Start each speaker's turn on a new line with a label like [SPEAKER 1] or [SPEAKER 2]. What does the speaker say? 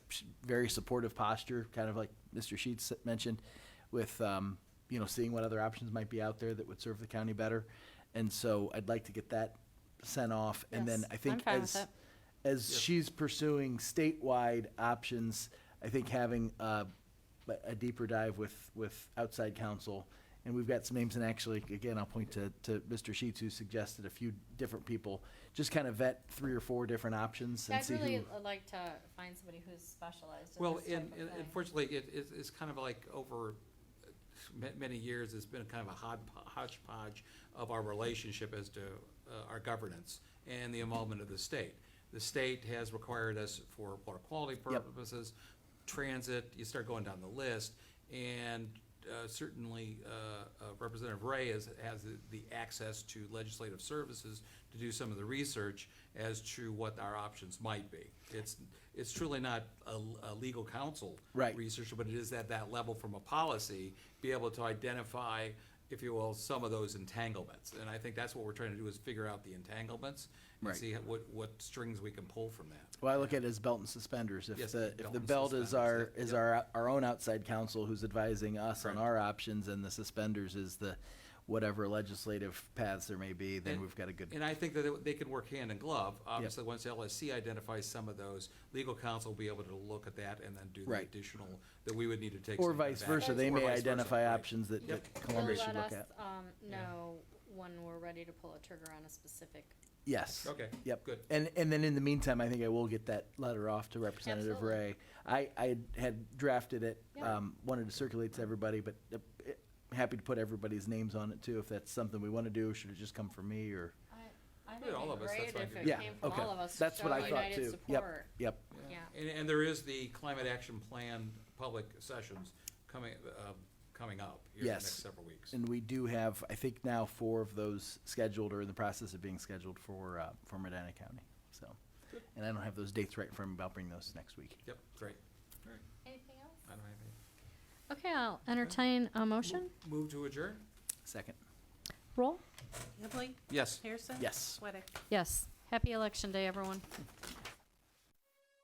[SPEAKER 1] very supportive posture, kind of like Mr. Sheets mentioned, with, um, you know, seeing what other options might be out there that would serve the county better. And so I'd like to get that sent off. And then
[SPEAKER 2] Yes,
[SPEAKER 1] I think
[SPEAKER 2] I'm fine with
[SPEAKER 1] as, as she's pursuing statewide options, I think having uh, a- a deeper dive with, with outside counsel, and we've got some names, and actually, again, I'll point to, to Mr. Sheets, who suggested a few different people, just kind of vet three or four different options and
[SPEAKER 2] I'd
[SPEAKER 1] see who.
[SPEAKER 2] really uh, like to find somebody who's specialized in
[SPEAKER 3] Well,
[SPEAKER 2] this
[SPEAKER 3] and,
[SPEAKER 2] type of
[SPEAKER 3] and
[SPEAKER 2] thing.
[SPEAKER 3] unfortunately, it, it's, it's kind of like over ma- many years, it's been kind of a hodp- hodgepodge of our relationship as to uh, our governance and the involvement of the state. The state has required us for water quality
[SPEAKER 1] Yep.
[SPEAKER 3] purposes, transit, you start going down the list, and uh, certainly uh, uh, Representative Ray has, has the- the access to legislative services to do some of the research as to what our options might be. It's, it's truly not a, a legal counsel
[SPEAKER 1] Right.
[SPEAKER 3] research, but it is at that level from a policy, be able to identify, if you will, some of those entanglements. And I think that's what we're trying to do is figure out the entanglements and
[SPEAKER 1] Right.
[SPEAKER 3] see what, what strings we can pull from that.
[SPEAKER 1] Well, I look at it as belt and suspenders. If
[SPEAKER 3] Yes,
[SPEAKER 1] the, if
[SPEAKER 3] belt
[SPEAKER 1] the
[SPEAKER 3] and
[SPEAKER 1] belt is our,
[SPEAKER 3] suspenders,
[SPEAKER 1] is
[SPEAKER 3] yep.
[SPEAKER 1] our, our own outside counsel who's advising us on
[SPEAKER 3] Correct.
[SPEAKER 1] our options, and the suspenders is the whatever legislative paths there may be, then
[SPEAKER 3] And-
[SPEAKER 1] we've got a good,
[SPEAKER 3] And I think that it- they could work hand in glove. Obviously, once LSC identifies some of those, legal counsel will be able to look at that and then do the
[SPEAKER 1] Right.
[SPEAKER 3] additional, that we would need to take.
[SPEAKER 1] or
[SPEAKER 3] some kind of
[SPEAKER 1] vice versa.
[SPEAKER 3] action.
[SPEAKER 1] They
[SPEAKER 3] Or
[SPEAKER 1] may
[SPEAKER 3] vice versa,
[SPEAKER 1] identify
[SPEAKER 3] right.
[SPEAKER 1] options that that
[SPEAKER 3] Yep.
[SPEAKER 2] They'll
[SPEAKER 1] Columbia should look
[SPEAKER 2] Let
[SPEAKER 1] at.
[SPEAKER 2] us, um,
[SPEAKER 3] Yeah.
[SPEAKER 2] know when we're ready to pull a trigger on a specific.
[SPEAKER 1] Yes.
[SPEAKER 3] Okay,
[SPEAKER 1] Yep.
[SPEAKER 3] good.
[SPEAKER 1] And, and then in the meantime, I think I will get that letter off to Representative
[SPEAKER 2] Absolutely.
[SPEAKER 1] Ray. I, I had drafted it,
[SPEAKER 2] Yeah.
[SPEAKER 1] um, wanted to circulate to everybody, but uh, eh, happy to put everybody's names on it too, if that's something we want to do. Should it just come from me or?
[SPEAKER 2] I, I
[SPEAKER 3] think all it'd be of us, that's great fine if
[SPEAKER 2] if
[SPEAKER 3] too.
[SPEAKER 2] it
[SPEAKER 3] it
[SPEAKER 1] Yeah,
[SPEAKER 2] came from
[SPEAKER 1] okay.
[SPEAKER 2] all of us to
[SPEAKER 1] That's
[SPEAKER 2] show
[SPEAKER 1] what I thought
[SPEAKER 2] united
[SPEAKER 1] too. Yep,
[SPEAKER 2] support.
[SPEAKER 1] yep.
[SPEAKER 2] Yeah.
[SPEAKER 3] And, and there is the climate action plan public sessions coming, uh, coming up here in the
[SPEAKER 1] Yes.
[SPEAKER 3] next several weeks.
[SPEAKER 1] And we do have, I think now four of those scheduled or in the process of being scheduled for, uh, for Medina County, so. And I don't have those dates right in front of me, but I'll bring those next week.
[SPEAKER 3] Yep, great.
[SPEAKER 2] Anything
[SPEAKER 3] I
[SPEAKER 2] else?
[SPEAKER 3] don't have anything.
[SPEAKER 2] Okay, I'll entertain a motion.
[SPEAKER 3] Move to adjourn?
[SPEAKER 1] Second.
[SPEAKER 2] Roll.
[SPEAKER 4] Hibbley?
[SPEAKER 3] Yes.
[SPEAKER 4] Harrison?
[SPEAKER 1] Yes.
[SPEAKER 4] Sweattick?
[SPEAKER 2] Yes. Happy Election Day, everyone.